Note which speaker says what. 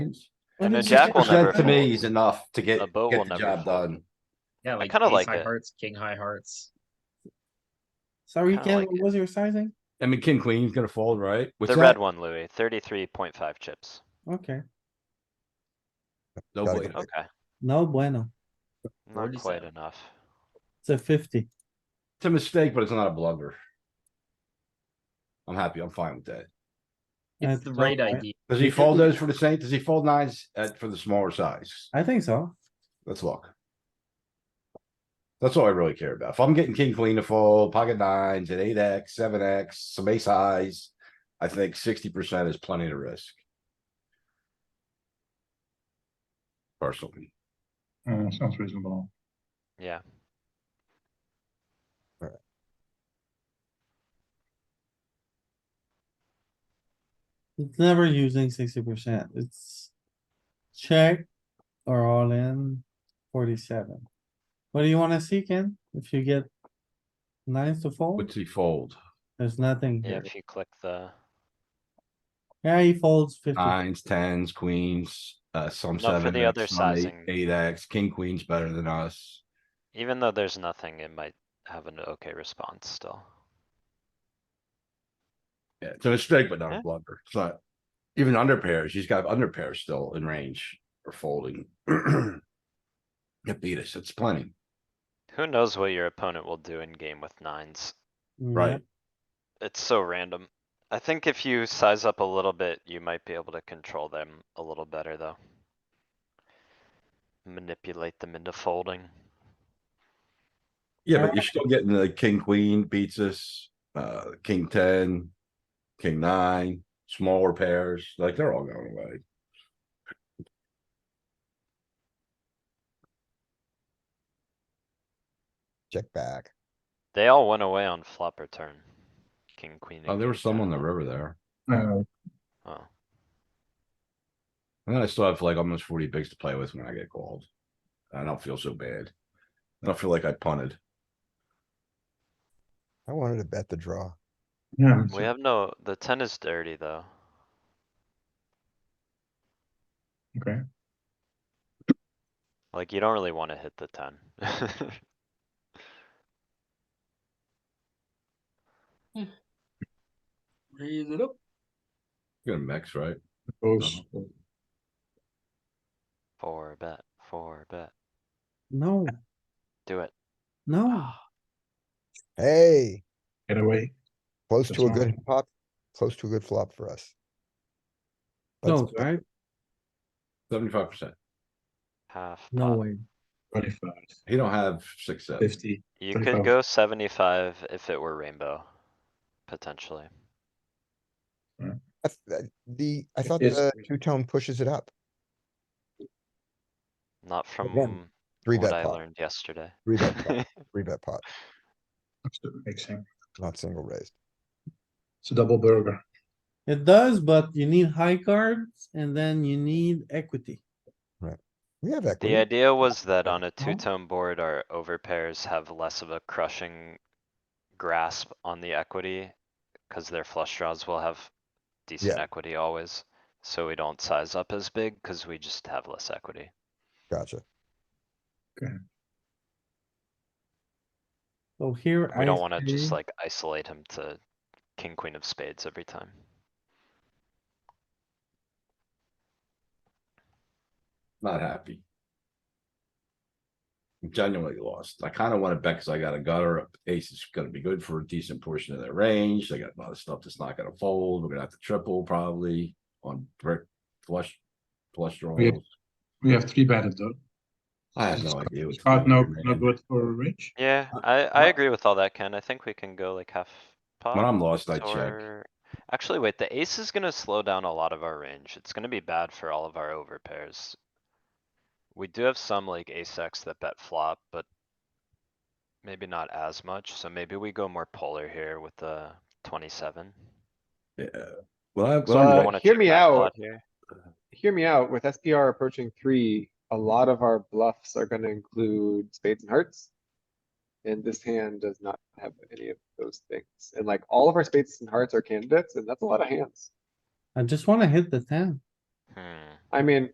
Speaker 1: And
Speaker 2: then
Speaker 1: it's
Speaker 2: Jack will
Speaker 1: just- that
Speaker 2: never
Speaker 1: To me
Speaker 2: fold.
Speaker 1: is enough to get,
Speaker 2: A
Speaker 1: get
Speaker 2: boat will
Speaker 1: the
Speaker 2: never
Speaker 1: job
Speaker 2: fold.
Speaker 1: done.
Speaker 3: Yeah, like
Speaker 2: kinda
Speaker 3: ace
Speaker 2: like
Speaker 3: high
Speaker 2: it.
Speaker 3: hearts, king high hearts.
Speaker 4: Sorry,
Speaker 2: Kinda
Speaker 4: Ken,
Speaker 2: like
Speaker 4: what
Speaker 2: it.
Speaker 4: was your sizing?
Speaker 5: I mean, king queen's gonna fold, right? What's
Speaker 2: The
Speaker 5: that?
Speaker 2: red one, Louis, thirty-three point five chips.
Speaker 4: Okay,
Speaker 5: No
Speaker 6: Gotta
Speaker 5: way.
Speaker 6: get
Speaker 2: Okay,
Speaker 4: no bueno.
Speaker 2: not quite
Speaker 3: 47.
Speaker 2: enough.
Speaker 4: It's a fifty.
Speaker 1: It's a mistake, but it's not a blunder. I'm happy, I'm fine with that.
Speaker 4: Yeah,
Speaker 3: It's the
Speaker 4: it's
Speaker 3: right
Speaker 4: all right.
Speaker 3: idea.
Speaker 1: Does he fold those for the same, does he fold nines at, for the smaller size?
Speaker 4: I think so.
Speaker 1: Let's look. That's all I really care about. If I'm getting king, queen to fold, pocket nines at eight X, seven X, some ace highs. I think sixty percent is plenty to risk. Personally,
Speaker 7: Oh,
Speaker 6: Uh, sounds reasonable.
Speaker 2: Yeah,
Speaker 4: It's never using sixty percent. It's check or all in forty-seven. What do you wanna see, Ken? If you get nines to fold,
Speaker 1: what's he fold?
Speaker 4: there's nothing
Speaker 2: yeah,
Speaker 4: here.
Speaker 2: if you click the,
Speaker 4: Yeah, he folds fifty.
Speaker 1: Nines, tens, queens, uh, some
Speaker 2: No, for
Speaker 1: seven.
Speaker 2: the other sizing.
Speaker 1: Eight X, king, queen's better than us.
Speaker 2: even though there's nothing, it might have an okay response still.
Speaker 1: Yeah, it's a mistake, but not
Speaker 2: Yeah.
Speaker 1: a blunder. It's not. Even under pairs, he's got under pairs still in range or folding. It beat us, it's plenty.
Speaker 2: Who knows what your opponent will do in game with nines?
Speaker 4: Mm, Yeah,
Speaker 1: Right.
Speaker 2: It's so random. I think if you size up a little bit, you might be able to control them a little better, though. Manipulate them into folding.
Speaker 1: Yeah, but you're still getting the king, queen beats us, uh, king ten, king nine, smaller pairs, like they're all going away.
Speaker 6: Check back.
Speaker 2: They all went away on flop or turn. King, queen. and
Speaker 1: Oh, there
Speaker 2: king
Speaker 1: was some on the
Speaker 2: jack.
Speaker 1: river there.
Speaker 6: Uh,
Speaker 2: Oh,
Speaker 1: And then I still have like almost forty bigs to play with when I get called. I don't feel so bad. I don't feel like I punted.
Speaker 6: I wanted to bet the draw.
Speaker 7: Yeah,
Speaker 2: we have no, the ten is dirty, though.
Speaker 7: okay.
Speaker 2: Like, you don't really wanna hit the ten.
Speaker 3: Raise it up.
Speaker 1: You're gonna mix, right?
Speaker 7: Those,
Speaker 2: Four bet, four bet,
Speaker 4: No,
Speaker 2: do it.
Speaker 4: no.
Speaker 2: Ah,
Speaker 6: Hey,
Speaker 7: get away.
Speaker 6: close
Speaker 7: That's
Speaker 6: to a
Speaker 7: all
Speaker 6: good
Speaker 7: right.
Speaker 6: pop, close to a good flop for us. Let's-
Speaker 4: No, right?
Speaker 1: Seventy-five percent.
Speaker 2: Half
Speaker 4: No
Speaker 2: pot.
Speaker 4: way.
Speaker 7: 25,
Speaker 1: He don't have six, seven.
Speaker 7: 50.
Speaker 2: You could
Speaker 7: 25.
Speaker 2: go seventy-five if it were rainbow, potentially.
Speaker 6: I th- that- uh, The, I
Speaker 7: It
Speaker 6: thought
Speaker 7: is
Speaker 6: the
Speaker 7: three.
Speaker 6: two-tone pushes it up.
Speaker 2: Not from
Speaker 6: Again, Three
Speaker 2: what
Speaker 6: bet
Speaker 2: I
Speaker 6: pot,
Speaker 2: learned yesterday.
Speaker 6: three bet pot, three bet pot,
Speaker 7: Mixing.
Speaker 6: not single raised.
Speaker 7: It's a double burger.
Speaker 4: It does, but you need high cards and then you need equity.
Speaker 6: We have
Speaker 2: The
Speaker 6: equity.
Speaker 2: idea was that on a two-tone board, our overpairs have less of a crushing grasp on the equity. Cause their flush draws will have decent equity always, so we don't size up as big, cause we just have less equity.
Speaker 6: Gotcha.
Speaker 4: So here.
Speaker 2: We don't
Speaker 4: I
Speaker 2: wanna just
Speaker 4: say-
Speaker 2: like isolate him to king, queen of spades every time.
Speaker 1: Not happy. I'm Genuinely lost. I kinda wanna bet because I got a gutter. Ace is gonna be good for a decent portion of their range. They got a lot of stuff that's not gonna fold. We're gonna have to triple probably on brick flush. Flush
Speaker 7: Yeah.
Speaker 1: draws.
Speaker 7: We have three batted though.
Speaker 1: I have
Speaker 7: It's
Speaker 1: no idea. what's
Speaker 7: Not,
Speaker 1: going
Speaker 7: no,
Speaker 1: on,
Speaker 7: not
Speaker 1: man.
Speaker 7: good for rich.
Speaker 2: Yeah,
Speaker 1: Uh,
Speaker 2: I, I agree with all that, Ken. I think we can go like half pot.
Speaker 1: When I'm lost, I check.
Speaker 2: or- Actually, wait, the ace is gonna slow down a lot of our range. It's gonna be bad for all of our over pairs. We do have some like ace X that bet flop, but. Maybe not as much, so maybe we go more polar here with the twenty-seven.
Speaker 1: Yeah. Well, I, well,
Speaker 8: So,
Speaker 2: Don't
Speaker 1: I'm-
Speaker 8: uh,
Speaker 2: wanna
Speaker 8: hear
Speaker 2: check
Speaker 8: me
Speaker 2: back pot
Speaker 8: out.
Speaker 2: here.
Speaker 8: Hear me out. With SPR approaching three, a lot of our bluffs are gonna include spades and hearts. And this hand does not have any of those things. And like all of our spades and hearts are candidates, and that's a lot of hands.
Speaker 4: I just wanna hit the ten.
Speaker 2: Hmm,
Speaker 8: I mean,